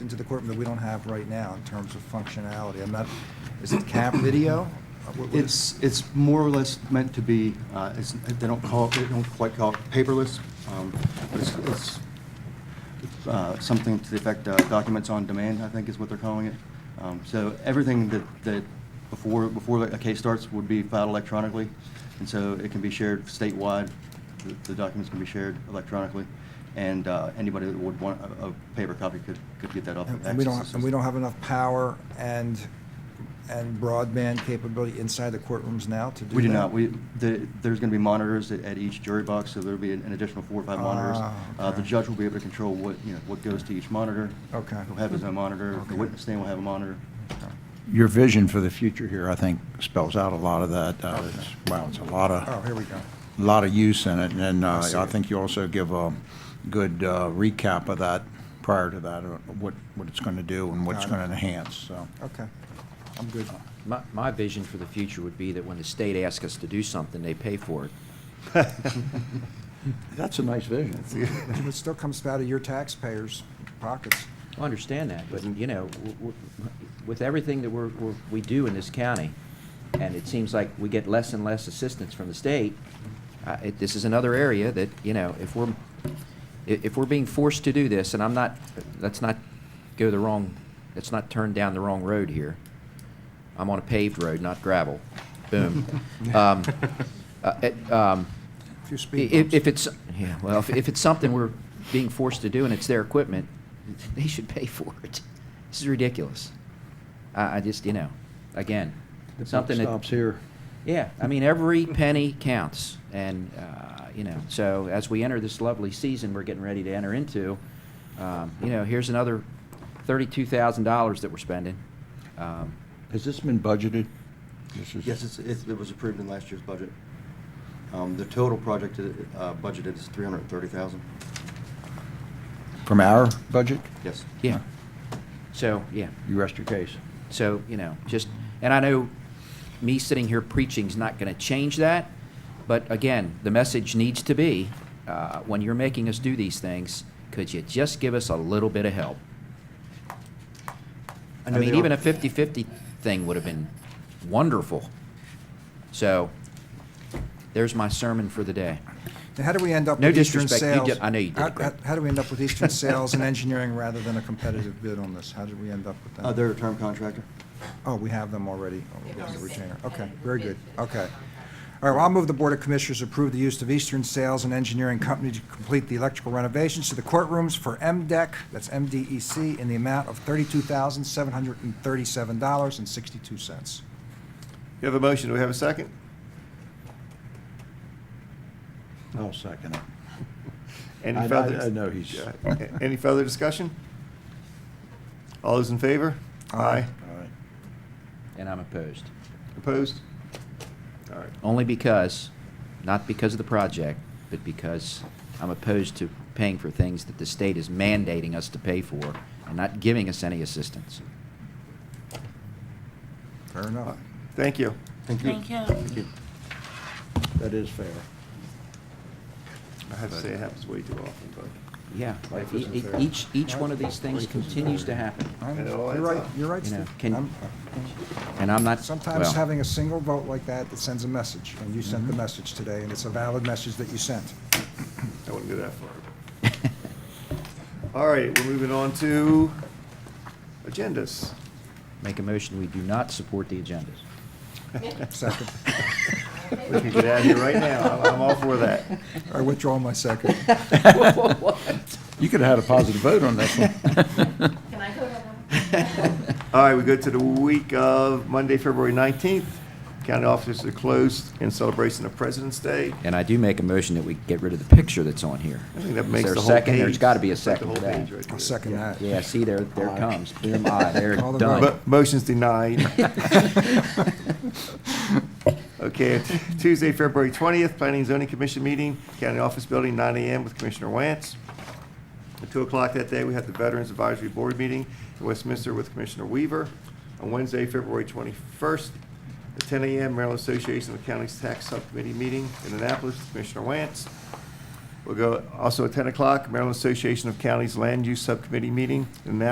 into the courtroom that we don't have right now in terms of functionality? I'm not, is it cap video? Uh, what- what is- It's, it's more or less meant to be, uh, it's, they don't call, it- they don't quite call it paperless, um, but it's, it's, uh, something to the effect, uh, documents on demand, I think is what they're calling it. Um, so everything that, that before, before a case starts would be filed electronically, and so it can be shared statewide, the, the documents can be shared electronically, and, uh, anybody that would want a, a paper copy could, could get that off. And the and we access don't, and we system. don't have enough power and, and broadband capability inside the courtrooms now to do that? We do not. We, the, there's going to be monitors at, at each jury box, so there'll be an an additional four or five monitors. Ah, Uh, the okay. judge will be able to control what, you know, what goes to each monitor. Okay. He'll have his own monitor. Okay. The witness stand will have a monitor. Your vision for the future here, I think, spells out a lot of that. Uh, it's- Wow, it's a lot Oh, of, here we go. lot of use in it, and uh, I see. I think you also give a good uh, recap of that prior to that, or what, what it's going to do and what it's Got it. going to enhance, so. Okay, I'm good. My, my vision for the future would be that when the state asks us to do something, they pay for it. That's a nice vision. But It still comes out of your taxpayers' pockets. I understand that, but, you know, w- w- with everything that we're, we're- we do in this county, and it seems like we get less and less assistance from the state, uh, it- this is another area that, you know, if we're, i- if we're being forced to do this, and I'm not, let's not go the wrong, let's not turn down the wrong road here. I'm on a paved road, not gravel. Boom. Um, uh, it, um, A few speed If, bumps. if it's, yeah, well, if, if it's something we're being forced to do and it's their equipment, they should pay for it. This is ridiculous. I, I just, you know, again, something that. Stops here. Yeah, I mean, every penny counts, and, uh, you know, so as we enter this lovely season we're getting ready to enter into, um, you know, here's another thirty-two thousand dollars that we're spending. Um, Has this been budgeted? This is- Yes, it's, it's- it was approved in last year's budget. Um, The total project uh, budgeted is 330,000. From our budget? Yes. Yeah. So, yeah, You rest your case. So, you know, just, and I know me sitting here preaching's not going to change that, but again, the message needs to be, uh, when you're making us do these things, could you just give us a little bit of help? I know mean, they even are- a 50-50 thing would have been wonderful. So, there's my sermon for the day. Now, how do we end up No with Eastern disrespect, you Sales? did- I know you did How- great. How how do we end up with Eastern Sales and Engineering rather than a competitive bid on this? How did we end up with that? Uh, They're a term contractor. Oh, we have them already, oh, Yeah. as a retainer. Okay, very good, okay. All right, well, I'll move the Board of Commissioners approve the use of Eastern Sales and Engineering Company to complete the electrical renovations to the courtrooms for MDEC, that's MDEC, in the amount of $32,737.62. You have a motion, do we have a second? I'll second it. Any I- I- further- I know he's- Yeah. Any further discussion? All those in favor? Aye. All right. And I'm opposed. Opposed? All right. Only because, not because of the project, but because I'm opposed to paying for things that the state is mandating us to pay for and not giving us any assistance. Fair enough. Thank you. Thank you. Thank you. Thank you. That is fair. I have to say, it happens way too often, but. Yeah, Life e- isn't e- fair. each, each one of these things continues to happen. I'm- I You're know, it's uh, right, up. you're right, You know, Steve. can- I'm- And I'm not, Sometimes well, Mm-hmm. having a single vote like that, that sends a message, and you sent the message today, and it's a valid message that you sent. I wouldn't go that far. All right, we're moving on to agendas. make a motion, we do not support the agendas. Second. We can get out of here right now. I'm I'm all for that. I withdraw my second. You could have had a positive vote on this one. Can I go to one? All right, we go to the week of Monday, February 19th. County offices are closed in celebration of President's Day. And I do make a motion that we get rid of the picture that's on here. I think that Is makes there a the whole second? page. There's got to be a That's like the second for whole that. page right I'll there. second that. Yeah, see, there, there it comes. Boom, aye, there, Call the done. vote. Mo- Motion's denied. Okay, t- Tuesday, February 20th, Planning and Zoning Commission meeting, County Office Building, 9 AM with Commissioner Wance. At 2 o'clock that day, we have the Veterans Advisory Board meeting in Westminster with Commissioner Weaver. On Wednesday, February 21st, at 10 AM, Maryland Association of Counties Tax Subcommittee meeting in Annapolis with Commissioner Wance. We'll go, also at 10 o'clock, Maryland Association of Counties Land Use Subcommittee meeting in Annapolis